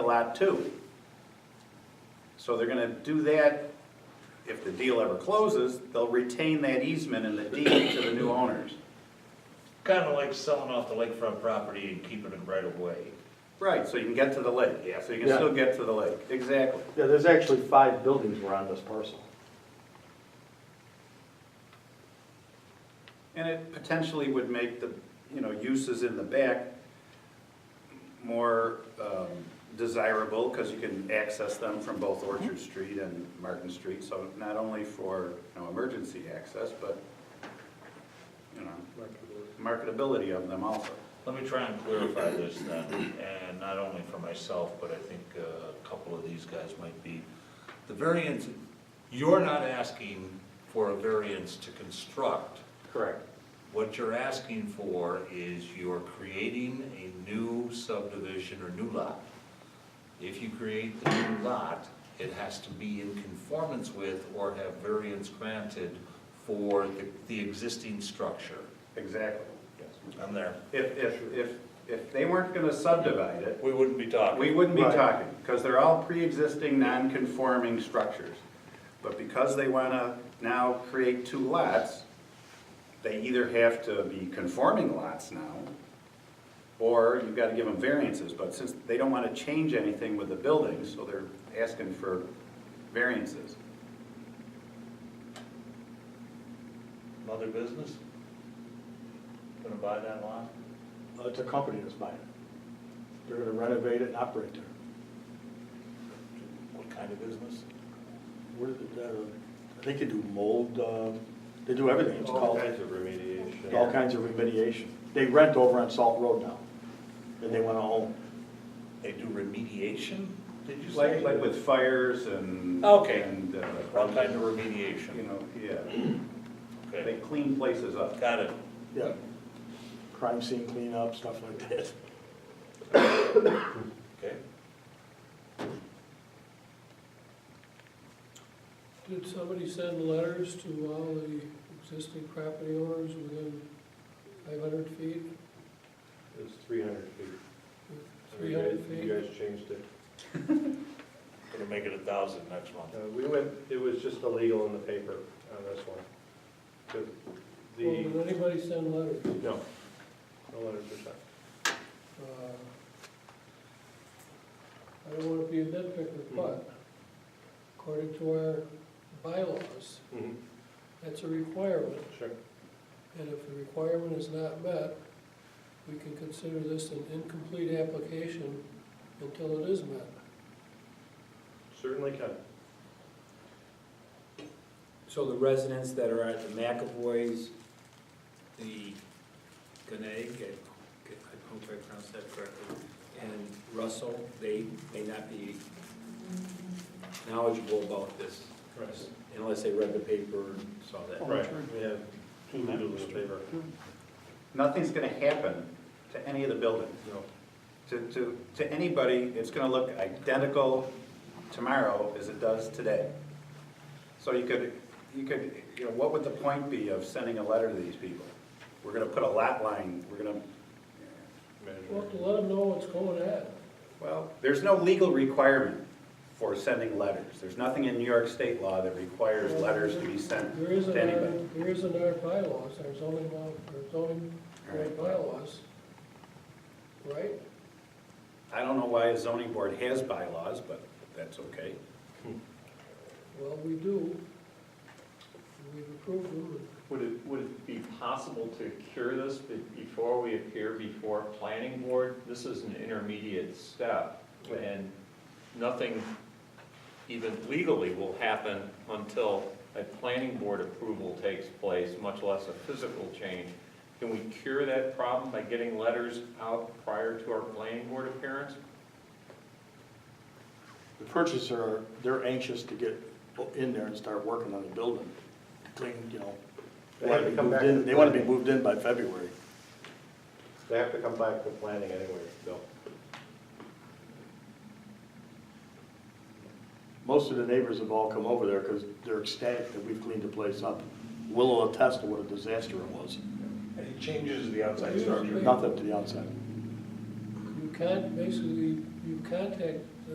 lot too. So they're gonna do that, if the deal ever closes, they'll retain that easement and the deed to the new owners. Kind of like selling off the lakefront property and keeping it right away. Right, so you can get to the lake, yeah, so you can Yeah. still get to the lake, exactly. Yeah, there's actually five buildings were on this parcel. And it potentially would make the, you know, uses in the back more um, desirable, because you can access them from both Orchard Street and Martin Street, so not only for, you know, emergency access, but, you know, marketability of them also. Let me try and clarify this then, and not only for myself, but I think uh, a couple of these guys might be. The variance, you're not asking for a variance to construct. Correct. What you're asking for is you're creating a new subdivision or new lot. If you create the new lot, it has to be in conformance with or have variance granted for the, the existing structure. Exactly. I'm there. If, if, if, if they weren't gonna subdivide it, We wouldn't be talking. we wouldn't be Right. talking, because they're all pre-existing, non-conforming structures. But because they wanna now create two lots, they either have to be conforming lots now, or you've gotta give them variances, but since they don't wanna change anything with the building, so they're asking for variances. Other business? Gonna buy that lot? Uh, It's a company that's buying it. They're gonna renovate it and operate there. What kind of business? What is it, uh, I think they do mold, uh, they do everything. It's called, of remediation. all kinds of remediation. They rent over on Salt Road now, and they wanna own. They do remediation, did you say? Like, like with fires and. Okay. And, uh, What kind you of remediation? know, yeah, they Okay, clean places up. got it. Yeah. Crime scene cleanup, stuff like that. Okay. Did somebody send letters to all the existing property owners within five hundred feet, It's three hundred feet. three hundred You guys- feet? You guys changed it. Gonna make it a thousand next month. Uh, we went, it was just illegal in the paper on this one. The- Well, The, did anybody send letters? no, no letters were sent. Uh, I don't wanna be a nitpicker, Hmm. but according to our bylaws, Mm-hmm. that's a requirement, Sure. and if the requirement is not met, we can consider this an incomplete application until it is met. Certainly can. So the residents that are at the McAvoy's, the Connecticut, I hope I pronounced that correctly, and Russell, they may not be knowledgeable about this unless they read the paper and saw Oh, that. Right, we have two legals in the paper. nothing's gonna happen to any of the buildings. No. To, to, to anybody, it's gonna look identical tomorrow as it does today. So you could, you could, you know, what would the point be of sending a letter to these people? We're gonna put a lot line, we're gonna, Well, Management. to let them know what's going on. well, there's no legal requirement for sending letters. There's nothing in New York state law that requires letters to be sent There is in to our, anybody. there is in our bylaws, our zoning law, our zoning All right. bylaws, right? I don't know why a zoning board has bylaws, but that's okay. Well, we do. We've approved them. Would it, would it be possible to cure this be- before we appear before planning board? This is an intermediate step, and nothing even legally will happen until a planning board approval takes place, much less a physical change. Can we cure that problem by getting letters out prior to our planning board appearance? The purchaser, they're anxious to get in there and start working on the building, clean, you know. They have to come back moved in- They wanna be moved in by February. They have to come back to planning anyway, Bill. Most of the neighbors have all come over there because they're ecstatic that we've cleaned the place up. Willow attest to what a disaster it was. It changes the outside structure. Nothing to the outside. You con, basically, you contact uh,